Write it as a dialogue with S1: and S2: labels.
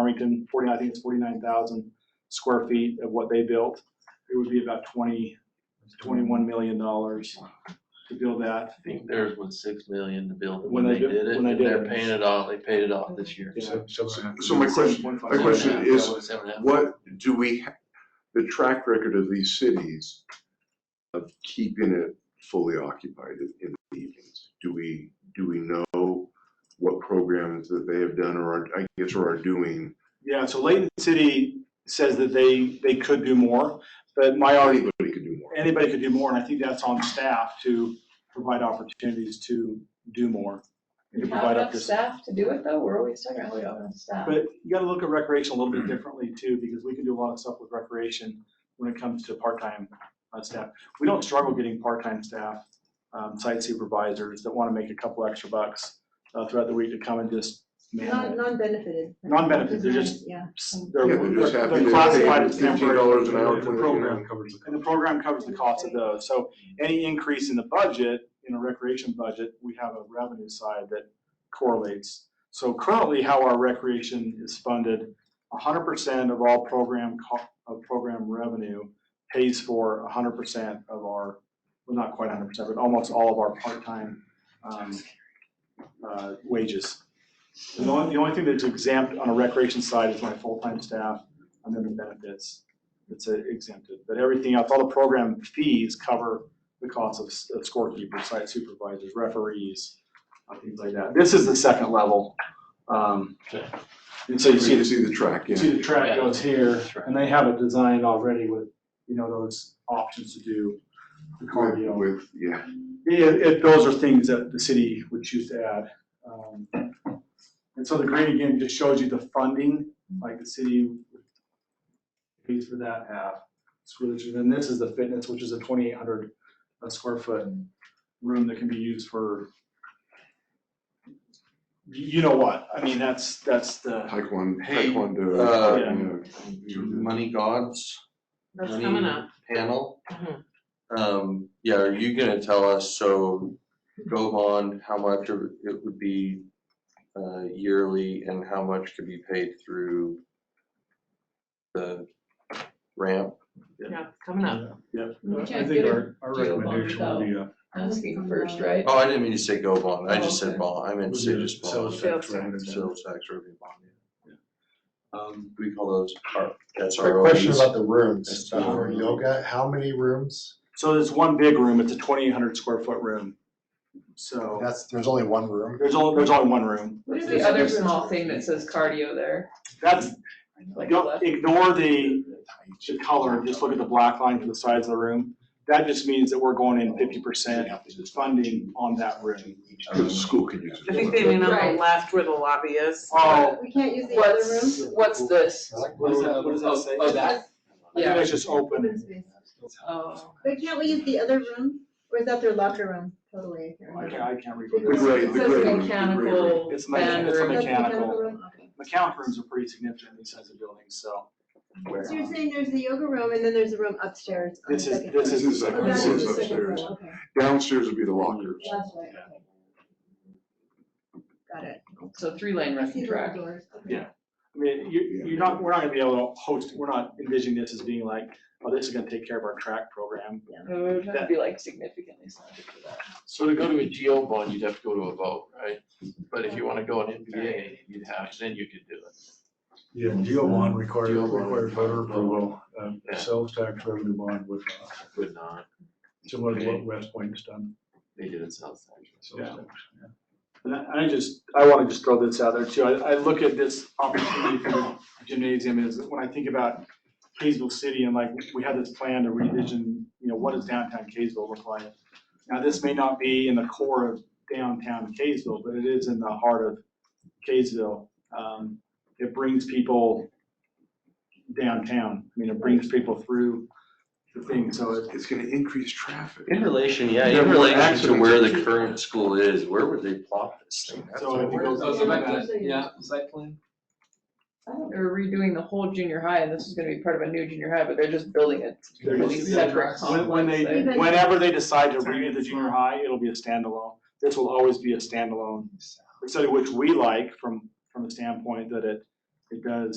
S1: Farmington, forty, I think it's forty-nine thousand square feet of what they built. It would be about twenty, twenty-one million dollars to build that.
S2: I think theirs was six million to build it
S1: When
S2: when
S1: they
S2: they
S1: did-
S2: did it,
S1: when they
S2: and
S1: did
S2: they're
S1: it.
S2: paying it off, they paid it off this year.
S1: Yeah.
S3: So my question, my question
S2: Seven and a half,
S3: is,
S2: yeah, seven and a half.
S3: what do we, ha- the track record of these cities of keeping it fully occupied in- in the evenings? Do we, do we know what programs that they have done or are, I guess, or are doing?
S1: Yeah, so Layton City says that they, they could do more, but my argument
S3: Anybody could do more.
S1: anybody could do more, and I think that's on staff to provide opportunities to do more. and to
S4: We
S1: provide
S4: have
S1: up
S4: enough
S1: to-
S4: staff to do it though, we're always talking about we don't have enough staff.
S1: But you gotta look at recreation a little bit differently too, because we can do a lot of stuff with recreation when it comes to part-time uh, staff. We don't struggle getting part-time staff, um, site supervisors that wanna make a couple extra bucks uh, throughout the week to come and just man
S5: Non,
S1: it.
S5: non-benefited.
S1: Non-benefited, they're just-
S5: Yeah.
S1: They're
S3: Yeah, they're just happy
S1: they're
S3: to
S1: classified
S3: pay
S1: as temporary.
S3: $15 an hour
S1: Yeah.
S3: for
S6: The program covers the.
S1: And the program covers the cost of those, so any increase in the budget, in a recreation budget, we have a revenue side that correlates. So currently, how our recreation is funded, hundred percent of all program co- of program revenue pays for hundred percent of our, well, not quite hundred percent, but almost all of our part-time, um, uh, wages. The only, the only thing that's exempt on a recreation side is my full-time staff and then the benefits it's uh, exempted, but everything else, all the program fees cover the cost of s- of scorekeepers, site supervisors, referees, uh, things like that. This is the second level. um, And so you see,
S3: You
S1: the-
S3: see the track,
S1: you
S3: yeah.
S1: see the track goes here, and they have it designed already with, you know, those options to do the
S3: With,
S1: cardio.
S3: with- yeah.
S1: Yeah, it, those are things that the city would choose to add. Um, And so the green again just shows you the funding, like the city pays for that half. It's really- And this is the fitness, which is a twenty-eight hundred uh, square foot room that can be used for you you know what, I mean, that's, that's the,
S3: Taekwondo.
S2: Hey,
S3: taekwondo,
S2: uh,
S3: yeah.
S2: Money gods,
S4: That's
S2: money
S4: coming up.
S2: panel.
S4: Mhm.
S2: Um, yeah, are you gonna tell us, so go on, how much of it would be uh yearly and how much could be paid through the ramp?
S4: Yeah, coming up.
S1: yeah.
S4: We
S6: I
S4: can't
S6: think
S4: get a
S6: our, our
S4: deal on
S6: recommendation would be, uh,
S4: That's the first, right?
S2: Oh, I didn't mean to say go bond, I just
S4: Oh,
S2: said
S4: okay.
S2: bond, I meant to
S6: would
S2: say
S6: be a
S2: just bond,
S6: sales tax
S4: Sales
S6: revenue.
S2: sales tax revenue bond.
S1: Um,
S2: We call those, our- that's
S7: Quick
S2: our.
S7: question about the rooms,
S2: That's
S7: uh,
S2: our-
S7: yoga, how many rooms?
S1: So there's one big room, it's a twenty-eight hundred square foot room. So
S7: That's, there's only one room.
S1: there's only, there's only one room.
S4: What is the other small thing that says cardio there?
S1: That's,
S4: Like
S1: Don't
S4: left?
S1: ignore the, the color, just look at the black line to the sides of the room. That just means that we're going in fifty percent funding on that room.
S3: Cause the school could use it.
S8: I think they mean on
S5: Right.
S8: the left where the lobby is.
S1: Oh,
S5: We can't use the other room?
S4: What's, what's this?
S1: what does that, what does that say?
S4: Oh, that?
S1: I think
S4: Yeah,
S1: that's just open.
S5: Open space.
S4: oh.
S5: But can't we use the other room? Or is that their locker room? Totally. I can't
S1: I
S5: remember.
S1: can't, I can't read.
S3: The gray,
S4: It
S3: the gray
S4: says
S3: room. the gray room.
S4: mechanical
S1: It's mechan-
S4: band
S1: it's a
S4: room.
S5: That's the
S1: mechanical.
S5: room? Okay.
S1: Mechanic rooms are pretty significant in these kinds of buildings, so.
S5: So you're saying there's the yoga room and then there's a room upstairs on the
S1: This is,
S5: second
S1: this
S3: This
S1: is.
S3: is
S5: floor.
S3: like-
S5: Oh, that
S3: this
S5: is
S3: is
S5: the second
S3: upstairs.
S5: floor, Okay,
S3: Downstairs would be the lockers.
S5: that's right, okay. Got it.
S4: So three lane
S5: See
S4: wrecking
S5: the
S4: track.
S5: doors, okay.
S1: Yeah. I mean, you, you're not, we're not gonna be able to host, we're not envisioning this as being like, oh, this is gonna take care of our track program.
S4: Oh, That'd be like significantly slanted for that.
S2: So to go to a GO bond, you'd have to go to a vote, right? But if you wanna go an NBA, you'd have, then you could do it.
S6: Yeah, GO bond required,
S2: GO bond.
S6: required voter approval, um,
S2: Yeah.
S6: sales tax revenue bond would, uh,
S2: Would not,
S6: similar to what West Point's done.
S2: they did it south side.
S6: sales
S1: Yeah.
S6: tax,
S1: And I I just, I want to just throw this out there too. I, I look at this opportunity for the gymnasium is when I think about Kaysville City and like, we had this plan to revision, you know, what does downtown Kaysville look like? Now, this may not be in the core of downtown Kaysville, but it is in the heart of Kaysville. Um, it brings people downtown. I mean, it brings people through the thing, so it,
S3: It's gonna increase traffic.
S2: In relation, yeah,
S3: There
S2: in
S3: were
S2: relation to
S3: accidents.
S2: where the current school is, where would they plot this thing? That's
S1: so
S2: what
S1: if it
S2: we're-
S1: goes.
S5: Oh, so back to the- yeah,
S8: site plan?
S4: I thought They were redoing the whole junior high and this is gonna be part of a new junior high, but they're just building a
S1: They're
S4: completely
S1: just-
S4: separate
S1: When, when
S4: complex
S1: they,
S4: there.
S5: Even-
S1: whenever they decide to redo the junior high, it'll be a standalone. This will always be a standalone study, which we like from, from the standpoint that it It does